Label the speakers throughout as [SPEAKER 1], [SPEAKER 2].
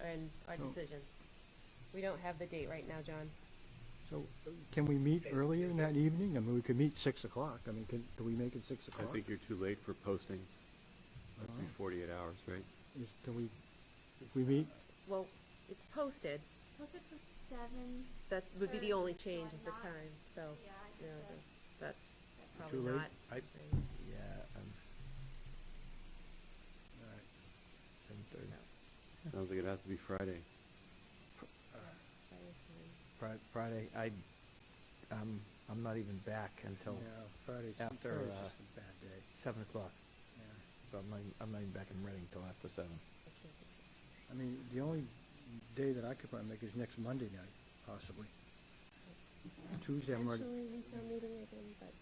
[SPEAKER 1] and our
[SPEAKER 2] So-
[SPEAKER 1] decision. We don't have the date right now, John.
[SPEAKER 2] So uh, can we meet earlier in that evening? I mean, we could meet 6 o'clock. I mean, can, do we make it 6
[SPEAKER 3] I
[SPEAKER 2] o'clock?
[SPEAKER 3] think you're too late for posting. Must be
[SPEAKER 2] Oh.
[SPEAKER 3] 48 hours, right?
[SPEAKER 2] Is, do we, if we meet,
[SPEAKER 1] Well, it's posted.
[SPEAKER 4] Posted for seven.
[SPEAKER 1] That would be the
[SPEAKER 4] Sure,
[SPEAKER 1] only
[SPEAKER 4] so
[SPEAKER 1] change
[SPEAKER 4] I'm
[SPEAKER 1] is the
[SPEAKER 4] not-
[SPEAKER 1] time, so,
[SPEAKER 4] Yeah, I
[SPEAKER 1] you know,
[SPEAKER 4] think that's-
[SPEAKER 1] the- that's probably
[SPEAKER 3] Too late?
[SPEAKER 1] not.
[SPEAKER 5] I-
[SPEAKER 1] right.
[SPEAKER 5] Yeah, I'm. Alright. Seven thirty.
[SPEAKER 3] Sounds like it has to be Friday.
[SPEAKER 1] Friday's fine.
[SPEAKER 5] Fri- Friday, I, I'm, I'm not even back until
[SPEAKER 2] Yeah, Friday's,
[SPEAKER 5] after,
[SPEAKER 2] Friday's
[SPEAKER 5] uh,
[SPEAKER 2] just a bad day.
[SPEAKER 5] seven o'clock.
[SPEAKER 2] Yeah.
[SPEAKER 5] So I'm not, I'm not even back in Reading till after seven.
[SPEAKER 1] I can't do it.
[SPEAKER 2] I mean, the only day that I could probably make is next Monday night, possibly. Tuesday, I'm already,
[SPEAKER 1] Actually, we have a meeting again, but,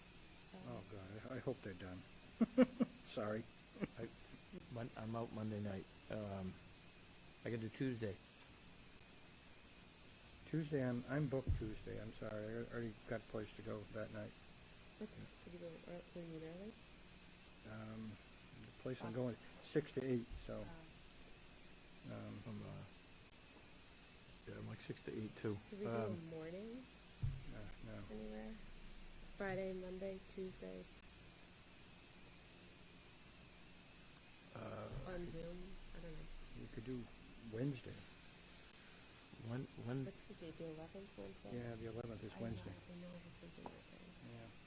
[SPEAKER 1] um,
[SPEAKER 2] oh, God, I, I hope they're done. Sorry.
[SPEAKER 5] I, Mon- I'm out Monday night. Um, I could do Tuesday.
[SPEAKER 2] Tuesday, I'm, I'm booked Tuesday. I'm sorry. I already got a place to go that night.
[SPEAKER 1] what- Could you go, ear- will uh, you early?
[SPEAKER 2] Um, the place I'm going, 6 to 8, so,
[SPEAKER 1] Um,
[SPEAKER 2] um,
[SPEAKER 5] I'm, uh, yeah, I'm like six to eight too.
[SPEAKER 1] Could we do
[SPEAKER 5] Um,
[SPEAKER 1] a morning
[SPEAKER 2] no, uh, no.
[SPEAKER 1] anywhere? Friday, Monday, Tuesday,
[SPEAKER 5] uh,
[SPEAKER 1] on Zoom? I don't know.
[SPEAKER 2] You could do Wednesday.
[SPEAKER 5] when, when,
[SPEAKER 1] What's the date, the eleventh, Wednesday?
[SPEAKER 2] Yeah, the 11th
[SPEAKER 1] I
[SPEAKER 2] is
[SPEAKER 1] know,
[SPEAKER 2] Wednesday.
[SPEAKER 1] I know this is the right thing.
[SPEAKER 2] Yeah.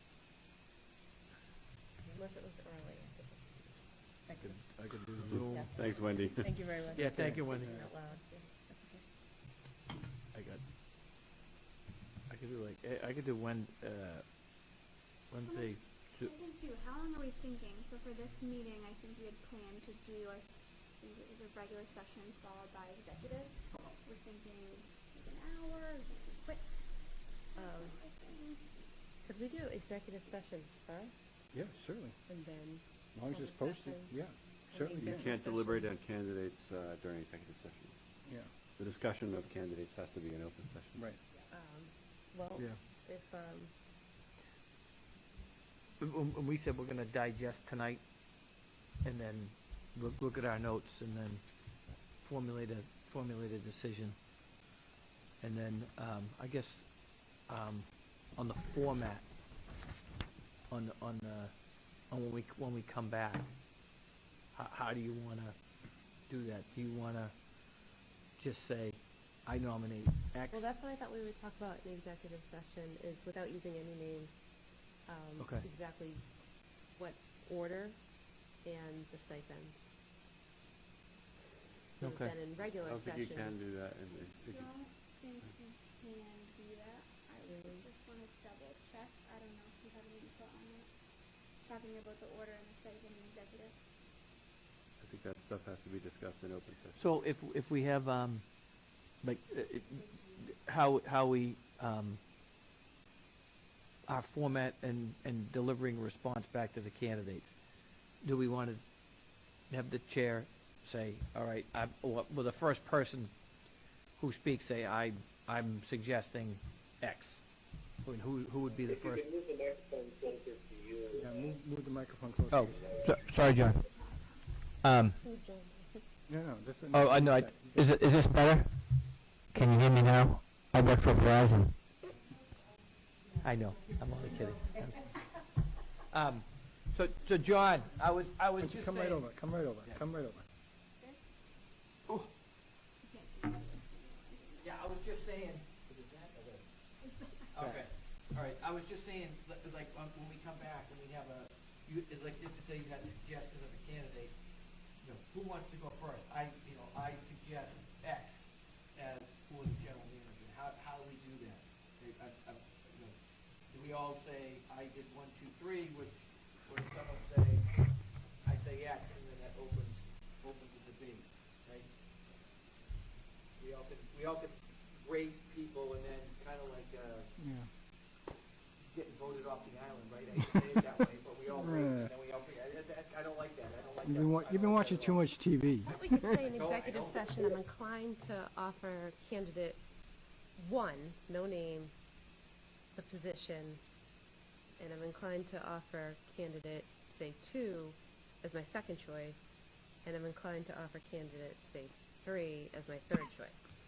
[SPEAKER 1] Unless it was early.
[SPEAKER 5] I could, I could do Zoom.
[SPEAKER 1] Yeah.
[SPEAKER 3] Thanks, Wendy.
[SPEAKER 1] Thank you very much.
[SPEAKER 5] Yeah, thank you, Wendy.
[SPEAKER 1] Thinking Out loud, yeah, that's okay.
[SPEAKER 5] I got, I could do like, I, I could do Wed, uh, Wednesday, Ju-
[SPEAKER 4] I think too, how long are we thinking? So for this meeting, I think we had planned to do, I think it was a regular session followed by executive. We're thinking like an hour, quick.
[SPEAKER 1] Um,
[SPEAKER 4] I think.
[SPEAKER 1] could we do executive session first
[SPEAKER 2] Yeah, certainly.
[SPEAKER 1] and then?
[SPEAKER 2] As long as it's
[SPEAKER 1] Public
[SPEAKER 2] posted,
[SPEAKER 1] session.
[SPEAKER 2] yeah, certainly,
[SPEAKER 1] think
[SPEAKER 2] yeah,
[SPEAKER 3] You
[SPEAKER 1] that's-
[SPEAKER 3] can't deliberate on candidates uh, during executive session.
[SPEAKER 2] yeah,
[SPEAKER 3] The discussion of candidates has to be an open session.
[SPEAKER 2] right.
[SPEAKER 1] Um, well,
[SPEAKER 5] yeah.
[SPEAKER 1] if, um,
[SPEAKER 5] When- when- when we said we're gonna digest tonight and then look, look at our notes and then formulate a, formulate a decision. And then, um, I guess, um, on the format, on, the- on, uh, on when we, c- when we come back, how, how do you wanna do that? Do you wanna just say, I nominate X?
[SPEAKER 1] well, that's what I thought we would talk about in executive session is without using any names, um,
[SPEAKER 5] Okay.
[SPEAKER 1] exactly what order and the stipend. So that
[SPEAKER 5] Okay.
[SPEAKER 1] Then in
[SPEAKER 3] I
[SPEAKER 1] regular
[SPEAKER 3] don't think
[SPEAKER 1] session.
[SPEAKER 3] you can do that. in- in-
[SPEAKER 4] I
[SPEAKER 3] if you-
[SPEAKER 4] don't think we can do that. I would just wanna double check. I don't know if you have any input on it. Talking about the order and the second executive.
[SPEAKER 3] I think that stuff has to be discussed in open session.
[SPEAKER 5] So if, if we have, um, like, uh, it- how, how we, um, our format and, and delivering response back to the candidate, do we want to have the chair say, all right, I, well, the first person who speaks say, I, I'm suggesting X? I mean, Who, who would be the
[SPEAKER 6] If you
[SPEAKER 5] first?
[SPEAKER 6] can move the microphone closer to you.
[SPEAKER 2] Yeah, move, move the microphone closer.
[SPEAKER 5] Oh, so- sorry, John. Um,
[SPEAKER 1] Who joined?
[SPEAKER 2] No, no, this is.
[SPEAKER 5] oh, I know, I, is, it- is this better? Can you hear me now? I work for Verizon. I know, I'm only kidding. Um, so, so John, I was, I was just
[SPEAKER 2] Come right
[SPEAKER 5] saying-
[SPEAKER 2] over, come right over,
[SPEAKER 5] Yeah.
[SPEAKER 2] come right over.
[SPEAKER 5] Yeah, I was just saying. Okay, all right, I was just saying, li- like, um, when we come back and we have a, you, it's like, just to say you had suggestions of a candidate, you know, who wants to go first? I, you know, I suggest X as who is general manager, how, how do we do that? I- I- I- you know, Do we all say, I did one, two, three, which, or does someone say, I say X, and then that opens, opens the debate, right? We all could, we all could rate people and then kind of like, uh, getting voted off the island, right? I hate to say it that way, but we all rate, and then we all, pick. I, I- I don't like that, I don't like that.
[SPEAKER 2] You've been wa,
[SPEAKER 5] I
[SPEAKER 2] you've been
[SPEAKER 5] don't like
[SPEAKER 2] watching
[SPEAKER 5] that at
[SPEAKER 2] too
[SPEAKER 5] all.
[SPEAKER 2] much TV.
[SPEAKER 1] What we could say in
[SPEAKER 3] I don't- I
[SPEAKER 1] executive
[SPEAKER 3] don't-
[SPEAKER 1] session, I'm inclined to offer candidate one, no name, the position, and I'm inclined to offer candidate, say, two as my second choice, and I'm inclined to offer candidate, say, three as my third choice.